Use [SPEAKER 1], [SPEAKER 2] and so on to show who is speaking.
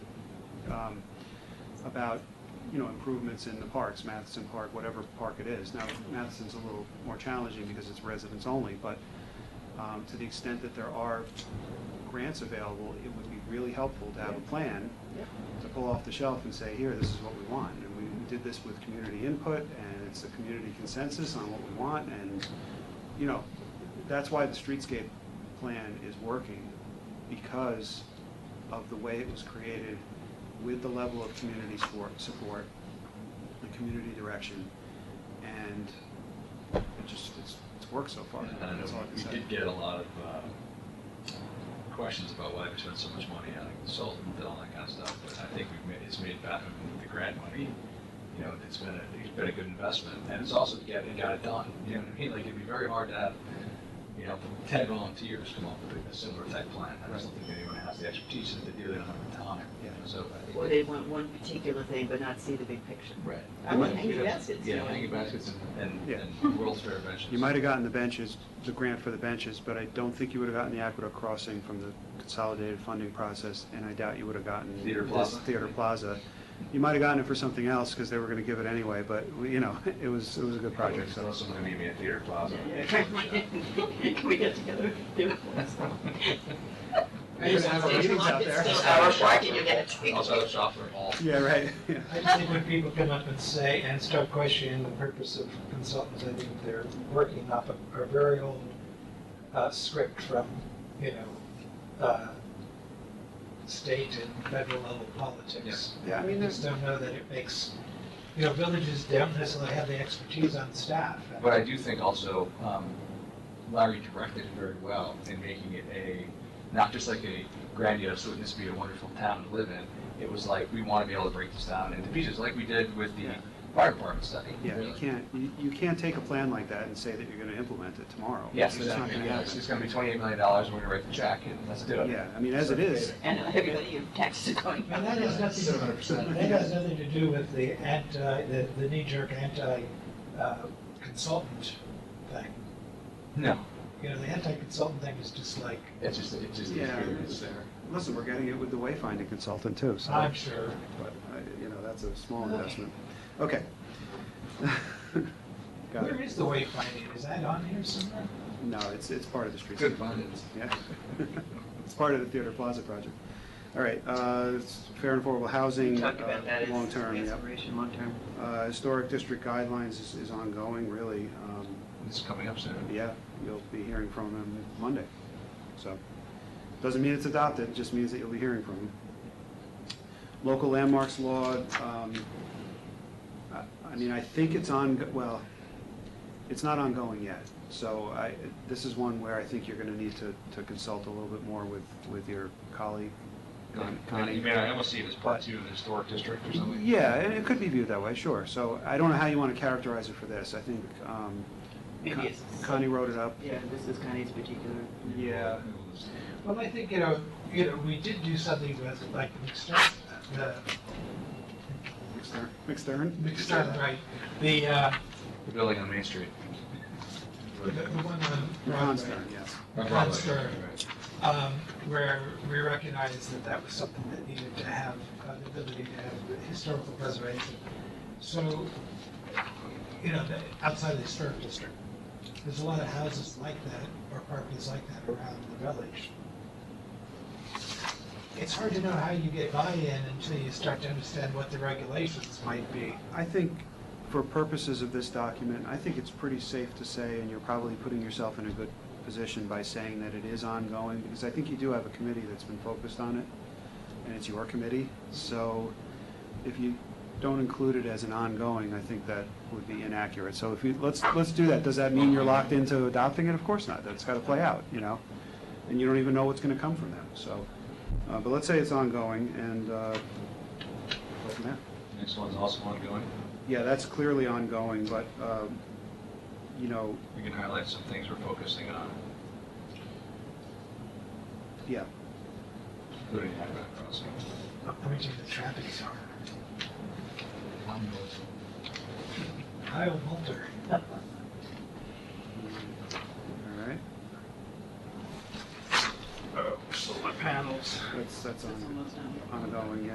[SPEAKER 1] um, about, you know, improvements in the parks, Matheson Park, whatever park it is. Now, Matheson's a little more challenging because it's residents only, but um, to the extent that there are grants available, it would be really helpful to have a plan to pull off the shelf and say, here, this is what we want. And we we did this with community input, and it's a community consensus on what we want, and, you know, that's why the streetscape plan is working, because of the way it was created, with the level of community support, support, the community direction, and it just, it's, it's worked so far.
[SPEAKER 2] And I know
[SPEAKER 1] That's all I can
[SPEAKER 2] we
[SPEAKER 1] say.
[SPEAKER 2] did get a lot of uh, questions about why we spent so much money on a consultant and all that kind of stuff, but I think we've made, it's made back with the grant money. You know, it's been, a- it's been a good investment, and it's also, yeah, it got it done, you know what I mean? Like, it'd be very hard to have, you know, ten volunteers come up with a similar type plan. I just don't think anyone has the expertise to do that on the time, you know, so. I think-
[SPEAKER 3] Or they want one particular thing but not see the big picture.
[SPEAKER 2] Right.
[SPEAKER 3] I want hanging baskets.
[SPEAKER 2] Yeah, hanging baskets and,
[SPEAKER 1] Yeah.
[SPEAKER 2] and- and World's Fair benches.
[SPEAKER 1] You might have gotten the benches, the grant for the benches, but I don't think you would have gotten the Aqueduct Crossing from the consolidated funding process, and I doubt you would have gotten.
[SPEAKER 2] Theater
[SPEAKER 1] this
[SPEAKER 2] Plaza.
[SPEAKER 1] Theater Plaza. You might have gotten it for something else, because they were gonna give it anyway, but, we- you know, it was, it was a good project, so.
[SPEAKER 2] Someone's gonna meet me at Theater Plaza.
[SPEAKER 3] Can we get together? Do it.
[SPEAKER 1] You're gonna have our meetings out there.
[SPEAKER 3] It's still our parking, you're gonna take-
[SPEAKER 2] Also, have a software hall.
[SPEAKER 1] Yeah, right, yeah.
[SPEAKER 4] I just think when people come up and say, and start questioning the purpose of consultants, I think they're working off a, a very old uh, script from, you know, uh, state and federal level politics.
[SPEAKER 1] Yeah, I mean,
[SPEAKER 4] I
[SPEAKER 1] there's,
[SPEAKER 4] just don't know that it makes, you know, villages don't necessarily have the expertise on staff.
[SPEAKER 2] But I do think also um, Larry directed it very well in making it a, not just like a grandiose, wouldn't this be a wonderful town to live in? It was like, we want to be able to break this down into pieces, like we did with the
[SPEAKER 1] Yeah.
[SPEAKER 2] fire department study.
[SPEAKER 1] yeah, you
[SPEAKER 2] really.
[SPEAKER 1] can't, you, you can't take a plan like that and say that you're gonna implement it tomorrow.
[SPEAKER 2] Yes,
[SPEAKER 1] It's just not
[SPEAKER 2] exactly.
[SPEAKER 1] gonna
[SPEAKER 2] Yeah,
[SPEAKER 1] happen.
[SPEAKER 2] It's uh, it's gonna be twenty-eight million dollars, and we're gonna write the check, and let's do it.
[SPEAKER 1] Yeah, I mean, as it is,
[SPEAKER 3] And everybody, your taxes are going
[SPEAKER 4] And that
[SPEAKER 3] up.
[SPEAKER 4] has nothing,
[SPEAKER 2] Hundred percent.
[SPEAKER 4] that has nothing to do with the anti, the, the knee-jerk anti-consultant thing.
[SPEAKER 2] No,
[SPEAKER 4] You know, the anti-consultant thing is just like,
[SPEAKER 2] it's just, it's just,
[SPEAKER 1] Yeah. uh,
[SPEAKER 2] it's there.
[SPEAKER 1] listen, we're getting it with the wayfinding consultant too, so.
[SPEAKER 4] I'm sure,
[SPEAKER 1] but, I- you know, that's a small investment. Okay. Got
[SPEAKER 4] where
[SPEAKER 1] it.
[SPEAKER 4] is the wayfinding? Is that on here somewhere?
[SPEAKER 1] No, it's, it's part of the street.
[SPEAKER 2] Good findings.
[SPEAKER 1] Yeah. It's part of the Theater Plaza project. All right, uh, it's fair and affordable housing.
[SPEAKER 3] We talked about that as
[SPEAKER 1] uh, Long-term, yep.
[SPEAKER 3] Restoration, long-term.
[SPEAKER 1] Uh, Historic district guidelines is, is ongoing, really. Um,
[SPEAKER 2] It's coming up soon.
[SPEAKER 1] Yeah, you'll be hearing from them Monday. So, doesn't mean it's adopted, it just means that you'll be hearing from them. Local landmarks law, um, I, I mean, I think it's on, well, it's not ongoing yet. So I, this is one where I think you're gonna need to, to consult a little bit more with, with your colleague, Con- Connie.
[SPEAKER 2] You mean, I almost see it as part two of the historic district or something.
[SPEAKER 1] Yeah, it it could be viewed that way, sure. So I don't know how you wanna characterize it for this. I think, um,
[SPEAKER 3] Maybe
[SPEAKER 1] Con-
[SPEAKER 3] it's-
[SPEAKER 1] Connie wrote it up.
[SPEAKER 3] Yeah, this is Connie's particular.
[SPEAKER 1] Yeah.
[SPEAKER 4] Well, I think, you know, you know, we did do something with, like, McStern, the,
[SPEAKER 1] McStern? McStern?
[SPEAKER 4] McStern, right, the, uh,
[SPEAKER 2] The building on Main Street.
[SPEAKER 4] the the one on
[SPEAKER 1] Ron
[SPEAKER 4] Broadway.
[SPEAKER 1] Stern, yes.
[SPEAKER 2] Or
[SPEAKER 4] Ron
[SPEAKER 2] Broadway.
[SPEAKER 4] Stern. um, where we recognized that that was something that needed to have, uh, the ability to have historical preservation. So, you know, the- outside of the historic district, there's a lot of houses like that, or properties like that around the village. It's hard to know how you get buy-in until you start to understand what the regulations might be.
[SPEAKER 1] I think for purposes of this document, I think it's pretty safe to say, and you're probably putting yourself in a good position by saying that it is ongoing, because I think you do have a committee that's been focused on it, and it's your committee. So if you don't include it as an ongoing, I think that would be inaccurate. So if you, let's, let's do that. Does that mean you're locked into adopting it? Of course not. That's got to play out, you know? And you don't even know what's going to come from them, so. uh, But let's say it's ongoing, and, uh, go from there.
[SPEAKER 2] Next one's also ongoing.
[SPEAKER 1] Yeah, that's clearly ongoing, but, um, you know,
[SPEAKER 2] We can highlight some things we're focusing on,
[SPEAKER 1] yeah,
[SPEAKER 2] including Aqueduct Crossing.
[SPEAKER 4] How much of the traffic are. Kyle Mulder.
[SPEAKER 1] all right,
[SPEAKER 2] Oh, solar panels.
[SPEAKER 1] that's, that's
[SPEAKER 3] That's
[SPEAKER 1] on-
[SPEAKER 3] almost done.
[SPEAKER 1] ongoing, yeah.